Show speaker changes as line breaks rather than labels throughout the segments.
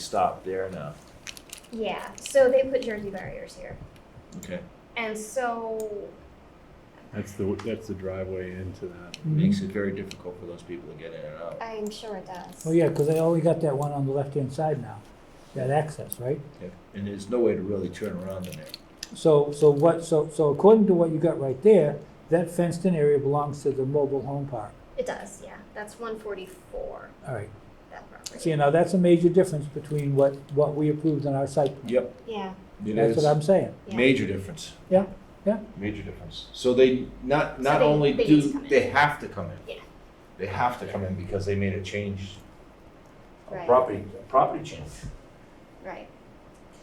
stop there now.
Yeah, so they put jersey barriers here.
Okay.
And so,
That's the that's the driveway into that.
Mm-hmm.
Makes it very difficult for those people to get in and out.
I'm sure it does.
Oh, yeah, because they only got that one on the left-hand side now, that access, right?
Yeah. And there's no way to really turn around in there.
So, so what, so, so according to what you got right there, that fenced-in area belongs to the mobile home park.
It does, yeah. That's 144,
All right,
that property.
see, now that's a major difference between what, what we approved on our site. plan.
Yep.
Yeah,
It
That's
is.
what I'm saying.
yeah.
Major difference.
Yeah, yeah.
Major difference. So they not,
So
not
they-
only
they just
do,
come in.
they have to come in.
Yeah.
They have to come in because they made a change, a
Right.
property, a property change,
Right.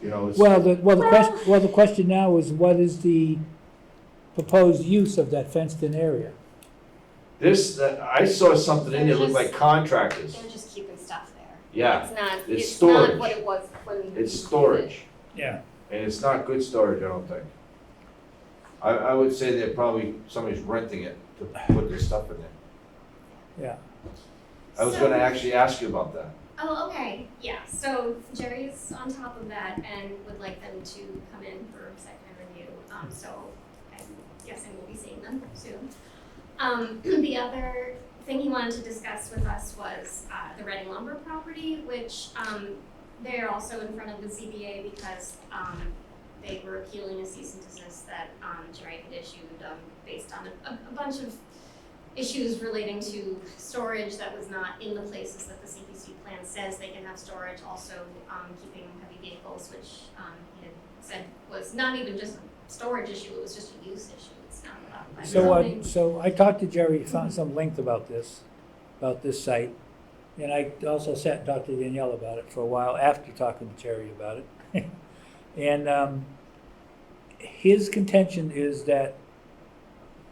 you know, it's.
Well, the, well, the
Well-
question, well, the question now is what is the proposed use of that fenced-in area?
This, uh, I saw something in there, looked like contractors.
They're just keeping stuff there.
Yeah,
It's not,
It's
it's not
storage.
what it was when.
it's storage.
Yeah.
And it's not good storage, I don't think. I, I would say that probably somebody's renting it to put their stuff in there.
Yeah,
I was
So-
gonna actually ask you about that.
Oh, okay, yeah, so Jerry's on top of that and would like them to come in for site plan review, um, so I'm guessing we'll be seeing them soon. Um, the other thing he wanted to discuss with us was, uh, the Reading lumber property, which, um, they're also in front of the ZBA because, um, they were appealing a cease and desist that, um, Jerry had issued, um, based on a, a a bunch of issues relating to storage that was not in the places that the CPC plan says they can have storage, also um keeping heavy vehicles, which um he had said was not even just a storage issue, it was just a use issue, it's not about like
So, uh, I,
zoning.
so I talked to Jerry, found some length about this, about this site. And I also sat Dr. Danielle about it for a while after talking to Jerry about it. And, um, his contention is that,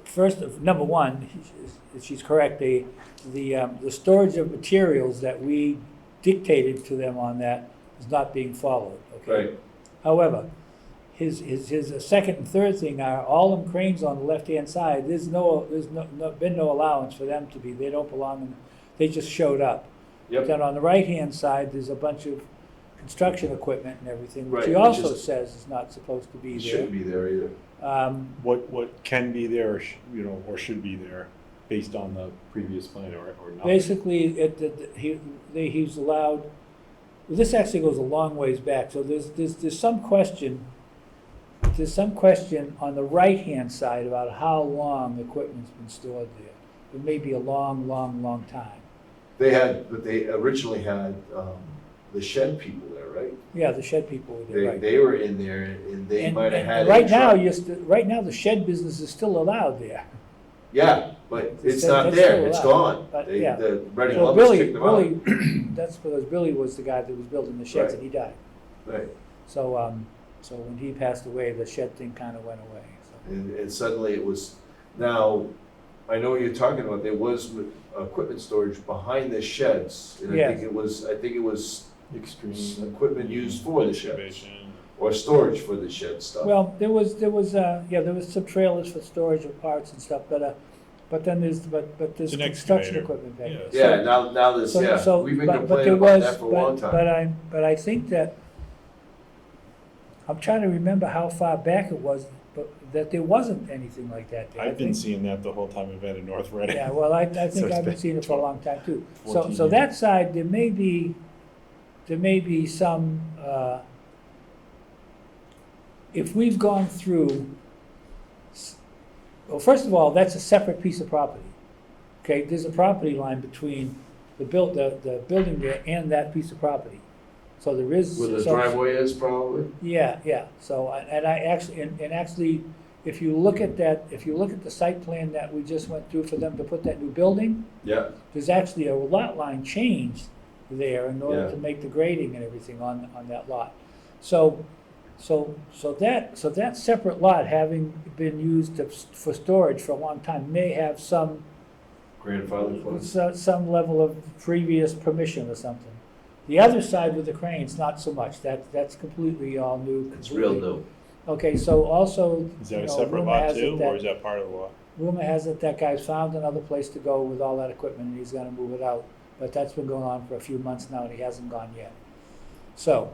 first, of number one, she's- she's correct, the, the, um, the storage of materials that we dictated to them on that is not being followed, okay? However, his, his, his second and third thing are all them cranes on the left-hand side, there's no, there's no, no, been no allowance for them to be, they don't belong in, they just showed up.
Yep.
Then on the right-hand side, there's a bunch of construction equipment and everything, which he
Right, which
also
is-
says is not supposed to be
It
there.
shouldn't be there either.
Um,
What what can be there, or sh- you know, or should be there, based on the previous plan or or not?
basically, it, it, he, they, he's allowed, well, this actually goes a long ways back, so there's, there's, there's some question, there's some question on the right-hand side about how long equipment's been stored there. It may be a long, long, long time.
They had, but they originally had, um, the shed people there, right?
Yeah, the shed people were there,
They,
right.
they were in there and they
And-
might have
and
had. a
Right now,
truck.
you're, st- right now, the shed business is still allowed there.
Yeah, but it's
It's-
not
it's
there,
still
it's
allowed,
gone.
but
They,
yeah.
the Reading
So
Lumber's
Billy,
kicked them out.
Billy, that's because Billy was the guy that was building the sheds and he died.
Right,
So, um, so when he passed away, the shed thing kind of went away, so.
and, and suddenly it was, now, I know what you're talking about, there was m- equipment storage behind the sheds. And I
Yeah.
think it was, I think it was s-
Extreme
equipment used for the sheds,
excavation.
or storage for the shed stuff.
Well, there was, there was, uh, yeah, there was some trailers for storage of parts and stuff, but, uh, but then there's, but, but there's
It's an
construction
excavator.
equipment back there.
Yeah, now, now this,
So-
yeah,
so-
we've been
but- but
complaining
there
about
was-
that for a
but-
long time.
But I, but I think that, I'm trying to remember how far back it was, but that there wasn't anything like that there. I
I've been
think-
seeing that the whole time I've been in North Reading.
Yeah, well, I, I
So
think
it's
I've been
been
seeing it for a long time too. So,
14
so that side, there may be, there may be some, uh, if we've gone through, s- well, first of all, that's a separate piece of property. Okay, there's a property line between the built, the, the building there and that piece of property. So there is.
Where the
so-
driveway is probably,
yeah, yeah, so, I- and I actually, and, and actually, if you look at that, if you look at the site plan that we just went through for them to put that new building,
yeah,
there's actually a lot line changed there in order
Yeah.
to make the grading and everything on, on that lot. So, so, so that, so that separate lot having been used to- for storage for a long time may have some,
grandfather clause.
so- some level of previous permission or something. The other side with the cranes, not so much, that, that's completely all new.
It's real
completely-
new.
Okay, so also,
Is
you
that a
know,
separate
rumor
lot
has it
too,
that-
or is that part of the lot?
Rumor has it that guy's found another place to go with all that equipment and he's gonna move it out. But that's been going on for a few months now and he hasn't gone yet. So,